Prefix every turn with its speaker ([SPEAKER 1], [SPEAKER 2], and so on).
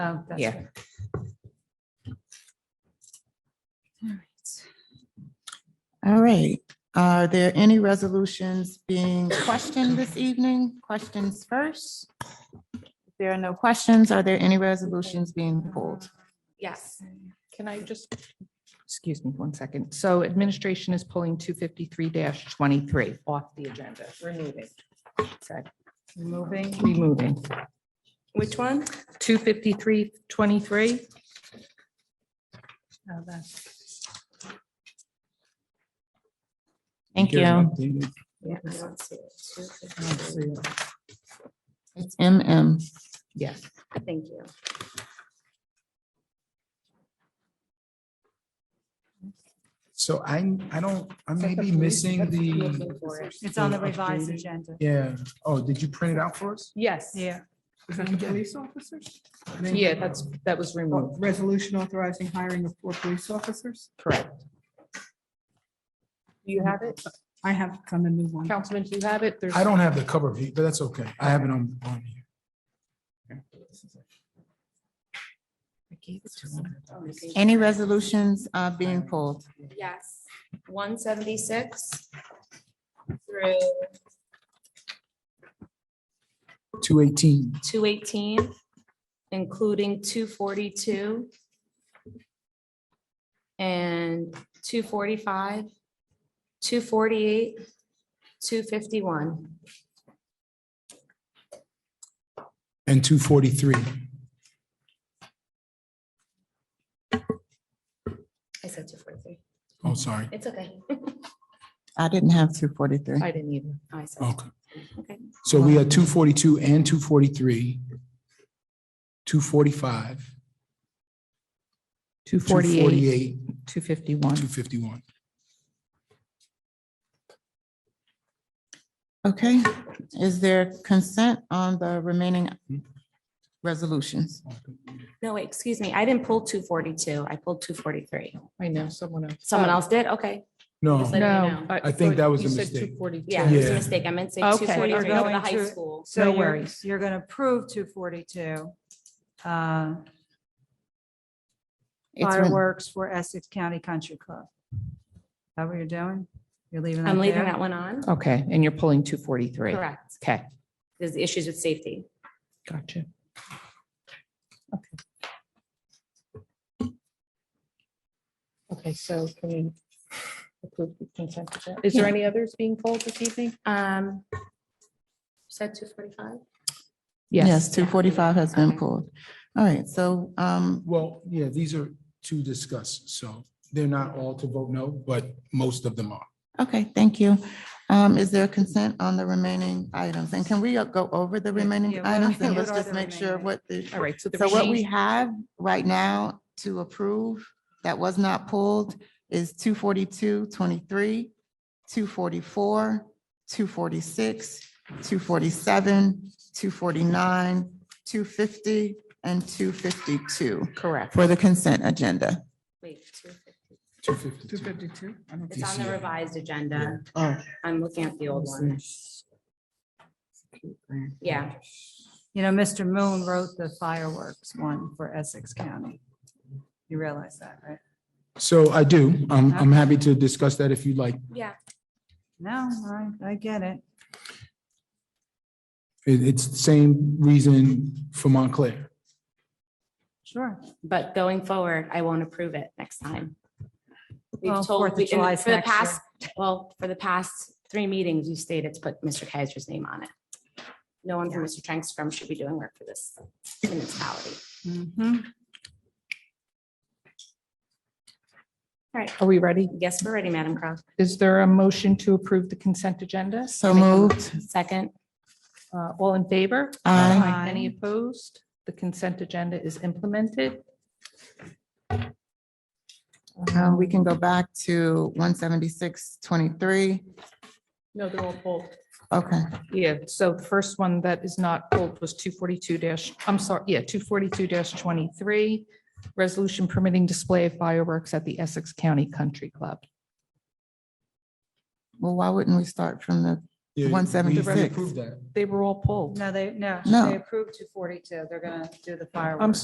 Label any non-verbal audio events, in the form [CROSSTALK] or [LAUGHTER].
[SPEAKER 1] Oh, that's
[SPEAKER 2] Yeah.
[SPEAKER 1] right. All right.
[SPEAKER 2] All right, are there any resolutions being questioned this evening? Questions first? If there are no questions, are there any resolutions being pulled?
[SPEAKER 1] Yes.
[SPEAKER 3] Can I just, excuse me one second. So administration is pulling two fifty-three twenty-three off the agenda. Removing. Sorry,
[SPEAKER 1] Moving.
[SPEAKER 3] removing.
[SPEAKER 1] Which one?
[SPEAKER 3] Two fifty-three twenty-three. Oh,
[SPEAKER 2] Thank you.
[SPEAKER 1] Yeah. I don't see it.
[SPEAKER 2] It's MM.
[SPEAKER 3] Yes.
[SPEAKER 1] Thank you.
[SPEAKER 4] So I, I don't, I may be
[SPEAKER 3] police-
[SPEAKER 4] missing
[SPEAKER 3] that's
[SPEAKER 4] the,
[SPEAKER 3] looking for it.
[SPEAKER 1] It's on the revised agenda.
[SPEAKER 4] yeah, oh, did you print it out for us?
[SPEAKER 3] Yes.
[SPEAKER 5] Yeah,
[SPEAKER 4] Is that the police officer?
[SPEAKER 3] Yeah, that's, that was removed.
[SPEAKER 5] resolution authorizing hiring of four police officers.
[SPEAKER 3] Correct. Do you have it?
[SPEAKER 5] I have come and move on.
[SPEAKER 3] Councilman, do you have it? There's-
[SPEAKER 4] I don't have the cover view, but that's okay. I have it on, on here.
[SPEAKER 2] Any resolutions uh, being pulled?
[SPEAKER 1] Yes, one seventy-six through
[SPEAKER 4] Two eighteen.
[SPEAKER 1] two eighteen, including two forty-two and two forty-five, two forty-eight, two fifty-one.
[SPEAKER 4] And two forty-three.
[SPEAKER 1] I said two forty-three.
[SPEAKER 4] Oh, sorry.
[SPEAKER 1] It's okay. [LAUGHS]
[SPEAKER 2] I didn't have two forty-three.
[SPEAKER 3] I didn't either.
[SPEAKER 1] I said,
[SPEAKER 4] Okay.
[SPEAKER 1] okay.
[SPEAKER 4] So we had two forty-two and two forty-three. Two forty-five.
[SPEAKER 3] Two forty-eight, two fifty-one.
[SPEAKER 4] Two fifty-one.
[SPEAKER 2] Okay, is there consent on the remaining resolutions?
[SPEAKER 1] No, wait, excuse me. I didn't pull two forty-two. I pulled two forty-three.
[SPEAKER 3] I know, someone else.
[SPEAKER 1] Someone else did? Okay.
[SPEAKER 4] No,
[SPEAKER 1] Let me
[SPEAKER 3] No.
[SPEAKER 1] know.
[SPEAKER 4] I think that was a mistake.
[SPEAKER 3] Two forty-two.
[SPEAKER 1] Yeah, it was a
[SPEAKER 4] Yeah.
[SPEAKER 1] mistake. I meant to say
[SPEAKER 3] Okay,
[SPEAKER 1] two
[SPEAKER 3] we're
[SPEAKER 1] forty-three for the
[SPEAKER 6] going
[SPEAKER 1] high
[SPEAKER 6] to-
[SPEAKER 1] school.
[SPEAKER 3] No
[SPEAKER 6] So you're,
[SPEAKER 3] worries.
[SPEAKER 6] you're going to approve 242. uh,
[SPEAKER 2] It's re-
[SPEAKER 6] Fireworks for Essex County Country Club. Is that what you're doing? You're leaving that
[SPEAKER 1] I'm leaving
[SPEAKER 6] there?
[SPEAKER 1] that one on.
[SPEAKER 3] Okay, and you're pulling two forty-three.
[SPEAKER 1] Correct.
[SPEAKER 3] Okay,
[SPEAKER 1] There's issues with safety.
[SPEAKER 3] gotcha. Okay. Okay, so can we approve the consent agenda? Is there any others being pulled this evening?
[SPEAKER 1] Um, you said two forty-five?
[SPEAKER 2] Yes, two forty-five has been pulled. All right, so um,
[SPEAKER 4] Well, yeah, these are to discuss, so they're not all to vote no, but most of them are.
[SPEAKER 2] Okay, thank you. Um, is there consent on the remaining items? And can we go over the remaining
[SPEAKER 6] yeah, what-
[SPEAKER 2] items and let's
[SPEAKER 6] what are
[SPEAKER 2] just
[SPEAKER 6] the
[SPEAKER 2] make sure
[SPEAKER 6] remaining?
[SPEAKER 2] what the,
[SPEAKER 3] All right, so the
[SPEAKER 2] so what we
[SPEAKER 3] remaining-
[SPEAKER 2] have right now to approve that was not pulled is two forty-two, twenty-three, two forty-four, two forty-six, two forty-seven, two forty-nine, two fifty, and two fifty-two
[SPEAKER 3] correct.
[SPEAKER 2] for the consent agenda.
[SPEAKER 1] Wait, two fifty.
[SPEAKER 4] Two fifty-two.
[SPEAKER 5] fifty-two.
[SPEAKER 1] It's on the
[SPEAKER 4] TCA.
[SPEAKER 1] revised agenda.
[SPEAKER 2] Oh.
[SPEAKER 1] I'm looking at the old one. Yeah,
[SPEAKER 6] You know, Mr. Moon wrote the fireworks one for Essex County. You realize that, right?
[SPEAKER 4] So I do. I'm, I'm happy to discuss that if you'd like.
[SPEAKER 1] yeah.
[SPEAKER 6] No, I, I get it.
[SPEAKER 4] It, it's the same reason for Montclair.
[SPEAKER 6] Sure.
[SPEAKER 1] But going forward, I won't approve it next time.
[SPEAKER 6] Well,
[SPEAKER 1] We've
[SPEAKER 6] Fourth
[SPEAKER 1] told,
[SPEAKER 6] of
[SPEAKER 1] we- and
[SPEAKER 6] July's
[SPEAKER 1] for the
[SPEAKER 6] next year.
[SPEAKER 1] past, well, for the past three meetings, you stated to put Mr. Kaiser's name on it. No one from Mr. Trank's firm should be doing work for this municipality.
[SPEAKER 6] Mhm.
[SPEAKER 3] Are we ready?
[SPEAKER 1] Yes, we're ready, Madam Crowe.
[SPEAKER 3] Is there a motion to approve the consent agenda?
[SPEAKER 2] So moved.
[SPEAKER 1] Second,
[SPEAKER 3] Uh, All in favor?
[SPEAKER 2] Aye.
[SPEAKER 6] Aye.
[SPEAKER 3] Any opposed? The consent agenda is implemented.
[SPEAKER 2] Uh, we can go back to one seventy-six, twenty-three.
[SPEAKER 3] No, they're all pulled.
[SPEAKER 2] Okay.
[SPEAKER 3] Yeah, so the first one that is not pulled was two forty-two I'm sorry, yeah, two forty-two twenty-three. Resolution permitting display of fireworks at the Essex County Country Club.
[SPEAKER 2] Well, why wouldn't we start from the,
[SPEAKER 4] Yeah, we-
[SPEAKER 2] 176.
[SPEAKER 4] we approved that.
[SPEAKER 3] They were all pulled.
[SPEAKER 6] No, they, no,
[SPEAKER 2] No.
[SPEAKER 6] they approved two forty-two. They're gonna do the fireworks.
[SPEAKER 3] I'm